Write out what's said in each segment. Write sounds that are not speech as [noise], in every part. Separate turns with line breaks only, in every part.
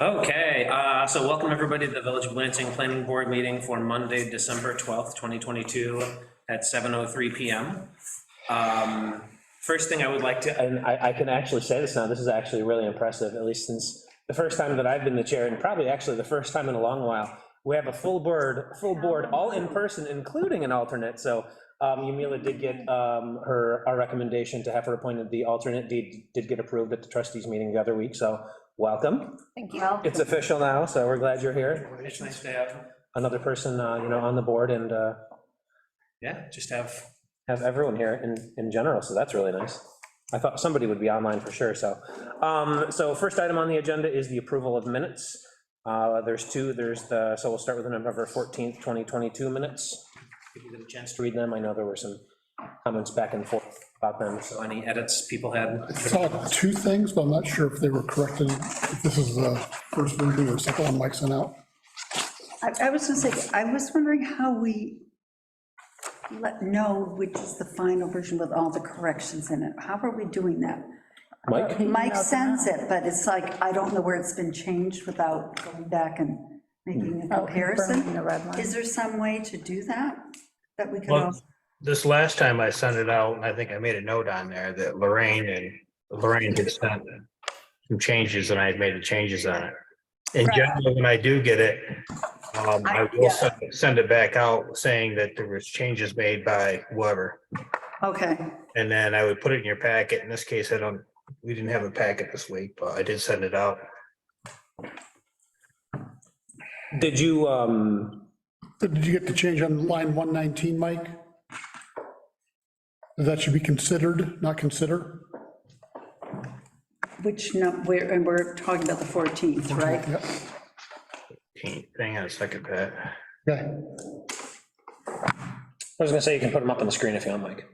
Okay, uh, so welcome everybody to the Village of Lansing Planning Board meeting for Monday, December 12th, 2022 at 7:03 PM. Um, First thing I would like to,
And I, I can actually say this now, this is actually really impressive, at least since the first time that I've been the chair, and probably actually the first time in a long while. We have a full board, full board, all in person, including an alternate, so um, Yumila did get um, her, our recommendation to have her appointed the alternate, did, did get approved at the trustees meeting the other week, so welcome.
Thank you.
It's official now, so we're glad you're here.
it's nice to have,
Another person, uh, you know, on the board and uh,
yeah, just have,
have everyone here in, in general, so that's really nice. I thought somebody would be online for sure, so. Um, so first item on the agenda is the approval of minutes. Uh, there's two, there's the, so we'll start with the November 14th, 2022 minutes. If you get a chance to read them, I know there were some comments back and forth about them, so.
any edits people had.
I saw two things, but I'm not sure if they were corrected, if this is the first version or second one Mike sent out.
I I was gonna say, I was wondering how we let know which is the final version with all the corrections in it. How are we doing that?
Mike,
Mike sends it, but it's like, I don't know where it's been changed without going back and making a
Oh, confirming
comparison.
The red line.
Is there some way to do that? That we could
Well,
all,
This last time I sent it out, and I think I made a note on there that Lorraine and Lorraine had sent some changes and I had made the changes on it. In
Right.
general, when I do get it, um,
I-
I
yeah.
will send send it back out saying that there was changes made by whoever.
okay,
And then I would put it in your packet. In this case, I don't, we didn't have a packet this week, but I did send it out.
did you, um,
But Did you get the change on line 119, Mike? That should be considered, not consider?
which, no, we're, and we're talking about the 14th, right?
Yep.
Hang on a second, Pat.
Okay.
I was gonna say you can put them up on the screen if you want, Mike.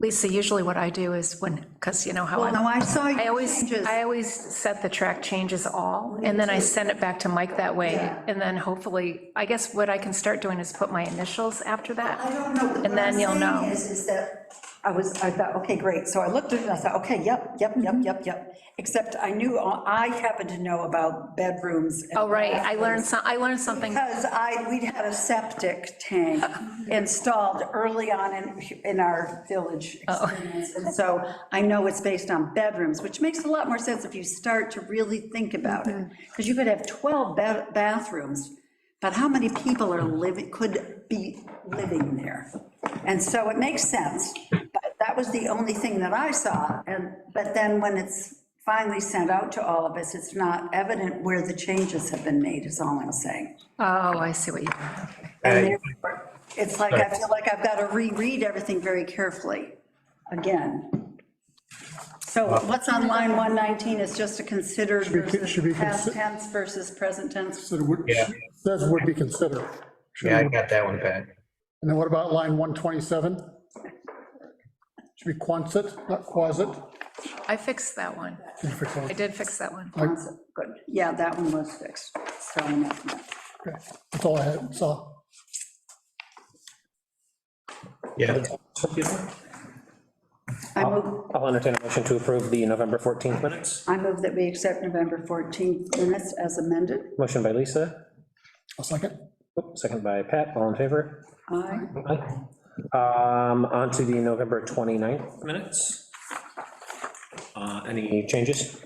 Lisa, usually what I do is when, because you know how
Well,
I,
no, I saw
I
your
always,
changes.
I always set the track changes all, and then I send it back to Mike that way.
Yeah.
And then hopefully, I guess what I can start doing is put my initials after
I
that.
don't know.
And then you'll
What I'm saying
know.
is, is that, I was, I thought, okay, great, so I looked at it, and I thought, okay, yep, yep, yep,
Mm-hmm.
yep, yep, except I knew, I happened to know about bedrooms. and
Oh, right, I
bathrooms
learned some, I learned something.
Because I, we'd had a septic tank installed early on in, in our village experience, and so I know it's based on bedrooms, which makes a lot more sense if you start to really think about it, because you could have 12 ba- bathrooms, but how many people are living, could be living there? And so it makes sense, but that was the only thing that I saw, and, but then when it's finally sent out to all of us, it's not evident where the changes have been made, is all I'm saying.
Oh, I see what you, okay.
And
Uh,
therefore, it's like, I feel like I've got to reread everything very carefully, again. So what's on line 119 is just a considedered
Should be- should be
versus past
consi-
tense versus present tense.
Consider would-
Yeah.
Says would be considered. Should
Yeah, I
be-
got that one, Pat.
And then what about line 127? Should be quonset, not quasit.
I fixed that one.
Did you fix
I
that?
did fix that one.
Good, yeah, that one was fixed. So enough of that.
Okay. That's all I had, saw.
Yeah,
I move,
I'll entertain a motion to approve the November 14th minutes.
I move that we accept November 14th minutes as amended.
Motion by Lisa,
A second.
Oop, second by Pat, all in favor?
Aye.
Um, on to the November 29th minutes. Uh, Any changes?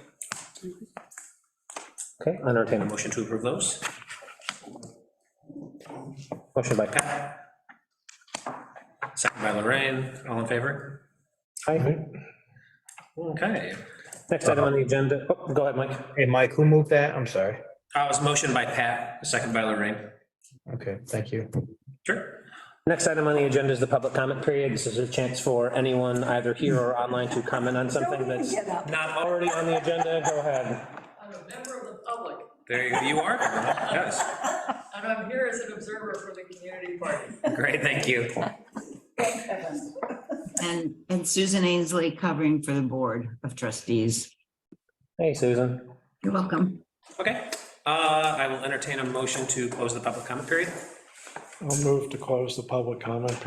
Okay, I'll entertain a motion to approve those. Motion by Pat,
Pat. Second by Lorraine, all in favor?
aye.
Okay.
Next item on the agenda, oh, go ahead, Mike.
hey, Mike, who moved that? I'm sorry.
Uh, It was motion by Pat, second by Lorraine.
Okay, thank you.
Sure.
Next item on the agenda is the public comment period. This is a chance for anyone either here or online to comment on something that's
Get up.
not already on the agenda. Go ahead.
I'm a member of the public,
There you- you are, yes.
[laughs] and I'm here as an observer for the community party.
Great, thank you.
And, and Susan Ainsley covering for the Board of Trustees.
Hey, Susan.
You're welcome.
Okay, uh, I will entertain a motion to close the public comment period.
I'll move to close the public comment